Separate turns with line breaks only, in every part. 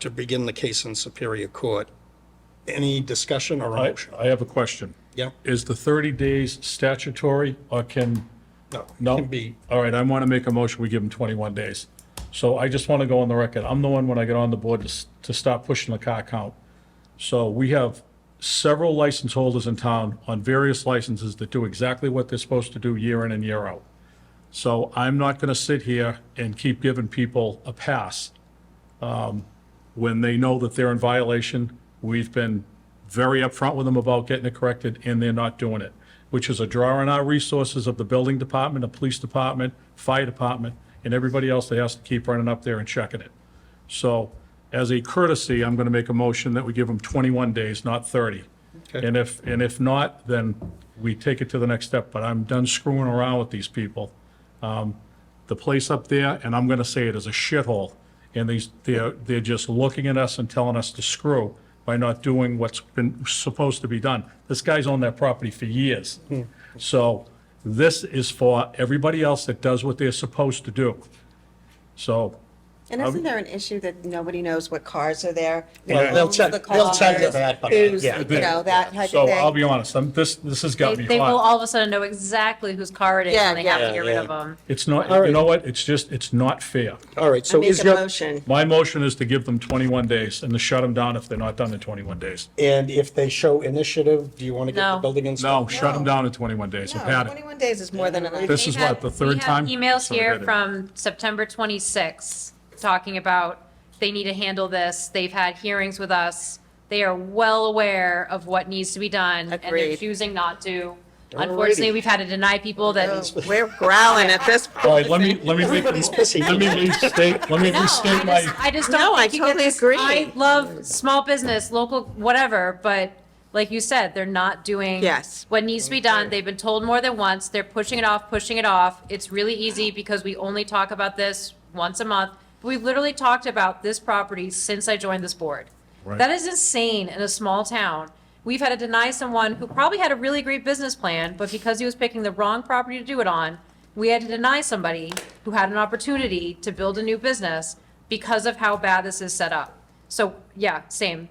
to begin the case in Superior Court. Any discussion or a
I,
motion?
I have a question.
Yeah,
Is the 30 days statutory or can,
no. it
no?
Can be,
All right, I want to make a motion, we give them 21 days. So I just want to go on the record, I'm the one when I get on the board to, s- to stop pushing the car count. So we have several license holders in town on various licenses that do exactly what they're supposed to do year in and year out. So I'm not going to sit here and keep giving people a pass um, when they know that they're in violation. We've been very upfront with them about getting it corrected, and they're not doing it, which is a draw on our resources of the building department, the police department, fire department, and everybody else that has to keep running up there and checking it. So as a courtesy, I'm going to make a motion that we give them 21 days, not 30.
Okay.
And if, and if not, then we take it to the next step, but I'm done screwing around with these people the place up there, and I'm gonna say it is a shithole. And these, they're, they're just looking at us and telling us to screw by not doing what's been supposed to be done. This guy's owned that property for years. So this is for everybody else that does what they're supposed to do. So,
And isn't there an issue that nobody knows what cars are there?
Well, they'll
Who owns
check-
the
they'll check
cars,
that, but,
who's,
yeah.
You know, that type
so I'll
of
be
thing.
honest, I'm, this, this has got
They,
me
they will
hot.
all of a sudden know exactly whose car it is
Yeah,
and they have
yeah.
to get rid
Yeah,
of
yeah.
them.
It's not, you know what, it's just, it's not fair.
all right,
I
so
make
is
a
your,
motion.
My motion is to give them 21 days and to shut them down if they're not done in 21 days.
and if they show initiative, do you want to get the
No.
building
No,
inspector?
shut them down in 21 days. I've
No,
had it.
twenty-one days is more than enough.
This
We
is
had-
what, the third time?
We have emails
So I
here
got it.
from September 26 talking about they need to handle this. They've had hearings with us. They are well aware of what needs to be done and they're
Agreed.
choosing not to.
Alrighty.
Unfortunately, we've had to deny people that.
Oh, We're growling at this
All
point.
right, let me, let me, make-
Everybody's pissy.
let me restate, let me
No, I
restate my,
just- I just
No,
don't
I
think you get
totally
this-
agree.
I love small business, local, whatever, but like you said, they're not doing.
Yes.
What needs to be done. They've been told more than once. They're pushing it off, pushing it off. It's really easy because we only talk about this once a month. We've literally talked about this property since I joined this board.
Right.
That is insane in a small town. We've had to deny someone who probably had a really great business plan, but because he was picking the wrong property to do it on, we had to deny somebody who had an opportunity to build a new business because of how bad this is set up. So, yeah, same.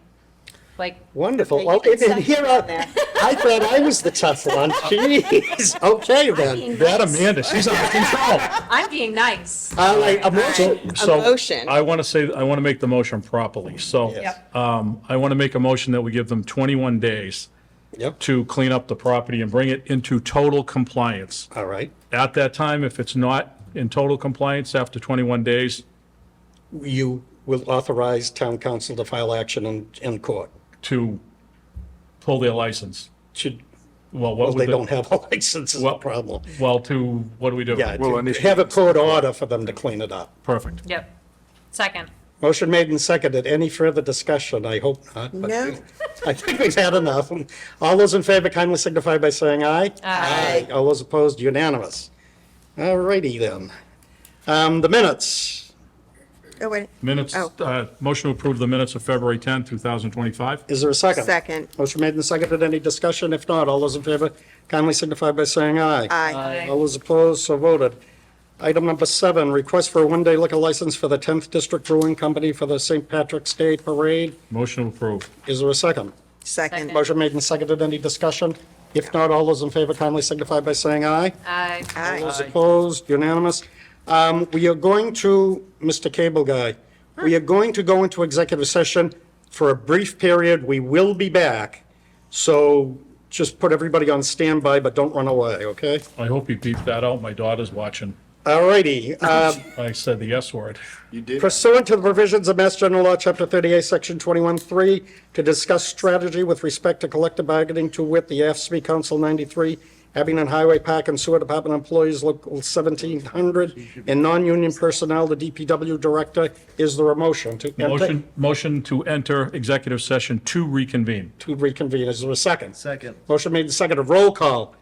Like,
Wonderful,
You
Oh,
okay,
can
then
second
here I,
on that.
I thought I was the tough one, jeez, okay then.
that Amanda, she's out of control.
I'm being nice.
All right, a motion,
So,
motion.
I want to say, I want to make the motion properly. So,
Yes.
um, I want to make a motion that we give them 21 days
yep,
to clean up the property and bring it into total compliance.
all right.
At that time, if it's not in total compliance after 21 days,
You will authorize town council to file action in, in court,
to pull their license.
should,
Well,
well,
what
they
would,
don't
the-
have a license is the
Well-
problem.
well, to, what do we do?
Yeah,
Well,
to
initially-
have a court order for them to clean it up.
Perfect.
Yep. Second.
Motion made and seconded. Any further discussion? I hope not. but
No.
I think we've had enough. All those in favor kindly signify by saying aye.
Aye.
All those opposed, unanimous. All righty then. Um, the minutes.
Oh, wait,
Minutes,
Oh.
uh, motion to approve the minutes of February 10, 2025.
Is there a second?
second,
Motion made and seconded. Any discussion? If not, all those in favor kindly signify by saying aye.
aye.
All those opposed, so voted. Item number seven, request for a one-day liquor license for the 10th District Brewing Company for the St. Patrick's Day Parade.
Motion to approve.
Is there a second?
Second,
Motion made and seconded. Any discussion? If not, all those in favor kindly signify by saying aye.
Aye.
aye.
Those opposed, unanimous. Um, We are going to, Mr. Cable Guy, we are going to go into executive session for a brief period. We will be back. So just put everybody on standby, but don't run away, okay?
I hope you beeped that out. My daughter's watching.
All righty. Uh,
I said the S word.
You did.
Pursuant to the provisions of Mass General Law, Chapter 38, Section 21-3, to discuss strategy with respect to collective bargaining to wit the AFSCME Council 93, Abington Highway Park and Sewer Department Employees Local 1700, and non-union personnel, the DPW Director. Is there a motion to enter-
Motion, motion to enter executive session to reconvene.
to reconvene? Is there a second?
Second.
Motion made and seconded. Roll call.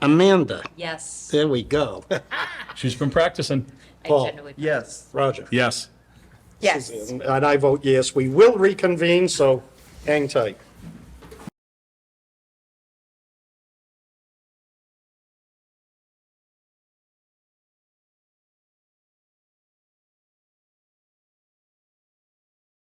Amanda.
Yes.
There we go.
She's been practicing.
I
Paul.
generally-
Yes.
Roger.
Yes.
Yes.
And I vote yes. We will reconvene, so hang tight.